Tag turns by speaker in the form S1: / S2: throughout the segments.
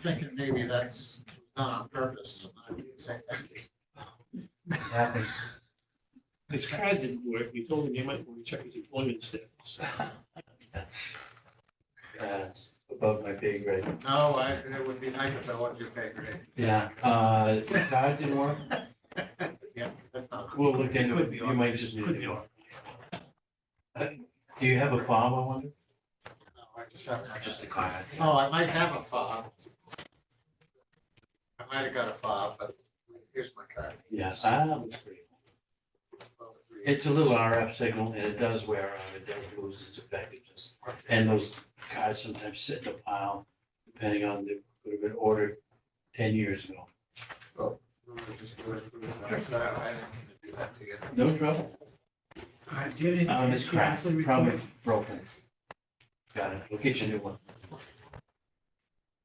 S1: thinking maybe that's not on purpose. so I wouldn't say that.
S2: Happy.
S3: His car didn't work. We told him he might want to check his employment status.
S2: Uh, it's above my pay grade.
S1: No, I, it would be nice if I wasn't your pay grade.
S2: Yeah, uh, car didn't work.
S1: Yeah, that's not.
S2: We'll look into
S3: Could
S2: it.
S3: be
S2: You
S3: on-
S2: might just need
S3: Could be
S2: to.
S3: on.
S2: Do you have a fob, I wonder?
S1: No, I just have.
S2: Just a car.
S1: Oh, I might have a fob. I might have got a fob, but here's my card.
S2: Yes, I have a pretty. It's a little RF signal and it does wear out. It does lose its effectiveness. And those cars sometimes sit in a pile, depending on the, could have been ordered ten years ago. No trouble.
S3: I did it.
S2: Um, it's cracked, probably broken. Got it. We'll get you a new one.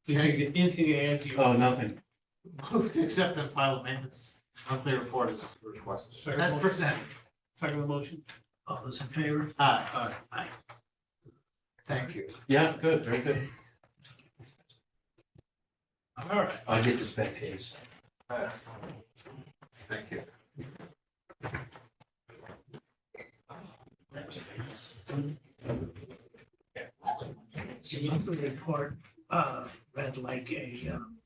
S3: You think that anything to add to your?
S2: Oh, nothing.
S1: Move to accept and file amendments, monthly report is requested.
S3: Second
S1: That's
S3: motion.
S1: presented.
S3: Second motion? All those in favor?
S1: Aye,
S3: Aye. Aye.
S1: thank you.
S2: Yeah, good, very good.
S3: All right.
S2: I'll get this back to you. so.
S1: Aye. Thank you.
S4: So you can report, uh, read like a, um,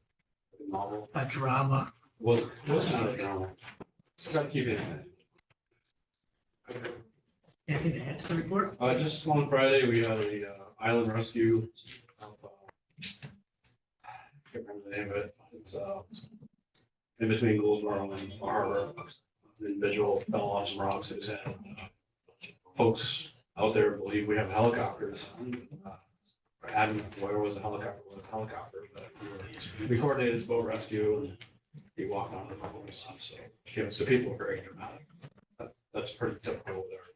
S2: Normal.
S4: a drama.
S2: Well, what's not normal? Stop keeping it.
S4: Anything to add to the report?
S5: Uh, just on Friday, we had a, uh, island rescue. of, uh, Can't remember the name of it, it's, uh, in between Goldsboro and Harbor. An individual fell off some rocks, it was had, uh, folks out there believe we have helicopters. Uh, Adam, where was the helicopter, was a helicopter, but we were- we coordinated his boat rescue and he walked on the boat and stuff, so, you know, so people are very dramatic. That- That's pretty typical there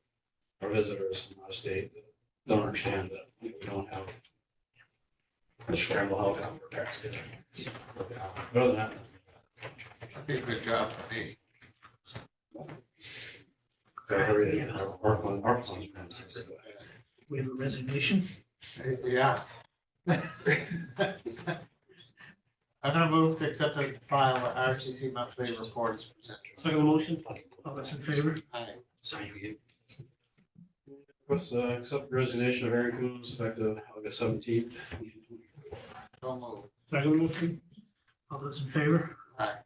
S5: our visitors from out of state that don't understand that you know, we don't have a scramble helicopter package. But other than that,
S1: That'd be a good job for me.
S5: they're very, our, our, our funds. are expensive.
S4: We have a resignation.
S1: Yeah. I'm gonna move to accept and file the RCC monthly report is presented.
S3: Second motion?
S4: All those in favor?
S1: Aye.
S2: Sorry for you.
S5: Request, uh, accept resignation of Aaron Coons effective August seventeenth.
S1: So moved.
S3: Second motion?
S4: All those in favor?
S1: Aye.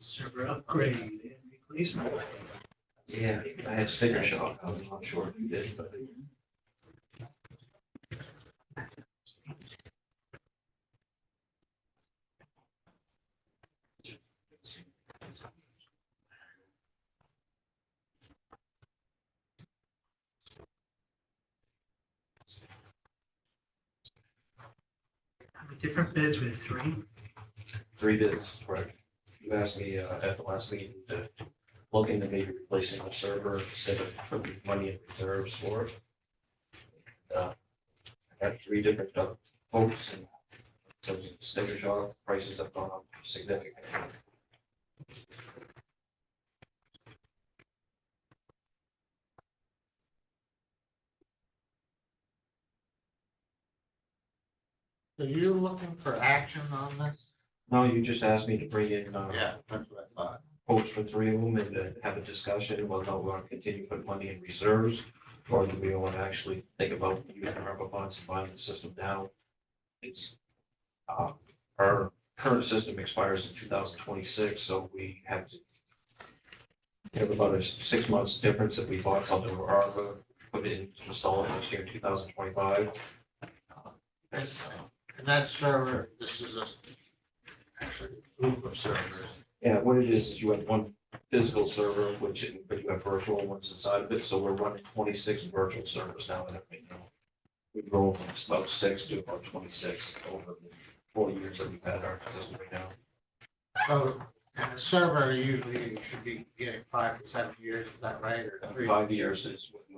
S4: Server upgrade and replacement.
S2: Yeah, I had sticker shock. I was not sure if you did, but.
S4: How many different bids? We have three.
S2: Three bids, correct. You asked me uh, at the last meeting to look into maybe replacing the server instead of putting money in reserves for it. Uh, I got three different uh, quotes and so the sticker shock prices have gone up significantly.
S1: Are you looking for action on this?
S2: No, you just asked me to bring in uh,
S1: Yeah, that's what I thought.
S2: quotes for three of them and to have a discussion, whether or not we want to continue to put money in reserves, or do we want to actually think about using our ARPA funds and buying the system now? It's, uh, our current system expires in two thousand twenty-six, so we have to we have about a six months difference if we bought something with ARPA, put it in, install it next year in two thousand twenty-five.
S1: That's- And that server, this is a, actually, group of servers.
S2: Yeah, what it is, is you have one physical server, which, but you have virtual ones inside of it, so we're running twenty-six virtual servers now. and everything now. We've grown from about six to about twenty-six over the four years that we've had our system right now.
S1: So, and a server usually should be getting five to seven years, is that right? Or
S2: Uh,
S1: three?
S2: Five years is what